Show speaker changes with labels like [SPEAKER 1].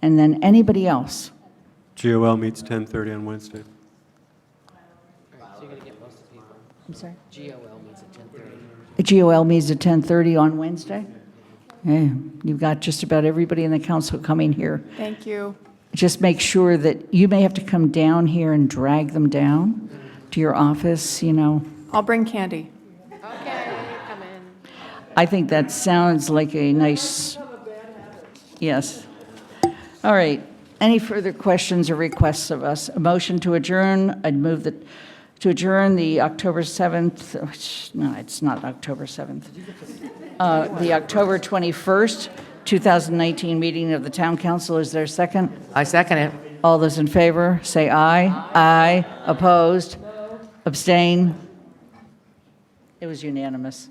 [SPEAKER 1] And then anybody else?
[SPEAKER 2] GOL meets 10:30 on Wednesday.
[SPEAKER 3] So you're gonna get most of the people.
[SPEAKER 1] I'm sorry?
[SPEAKER 3] GOL meets at ten thirty.
[SPEAKER 1] The GOL meets at 10:30 on Wednesday? Yeah, you've got just about everybody in the council coming here.
[SPEAKER 4] Thank you.
[SPEAKER 1] Just make sure that, you may have to come down here and drag them down to your office, you know?
[SPEAKER 4] I'll bring candy.
[SPEAKER 3] Okay, come in.
[SPEAKER 1] I think that sounds like a nice, yes. All right. Any further questions or requests of us? A motion to adjourn, I'd move that, to adjourn the October 7th, which- no, it's not October 7th. Uh, The October 21st, 2019 meeting of the Town Council. Is there a second?
[SPEAKER 3] I second it.
[SPEAKER 1] All those in favor, say aye. Aye. Opposed? Abstain? It was unanimous.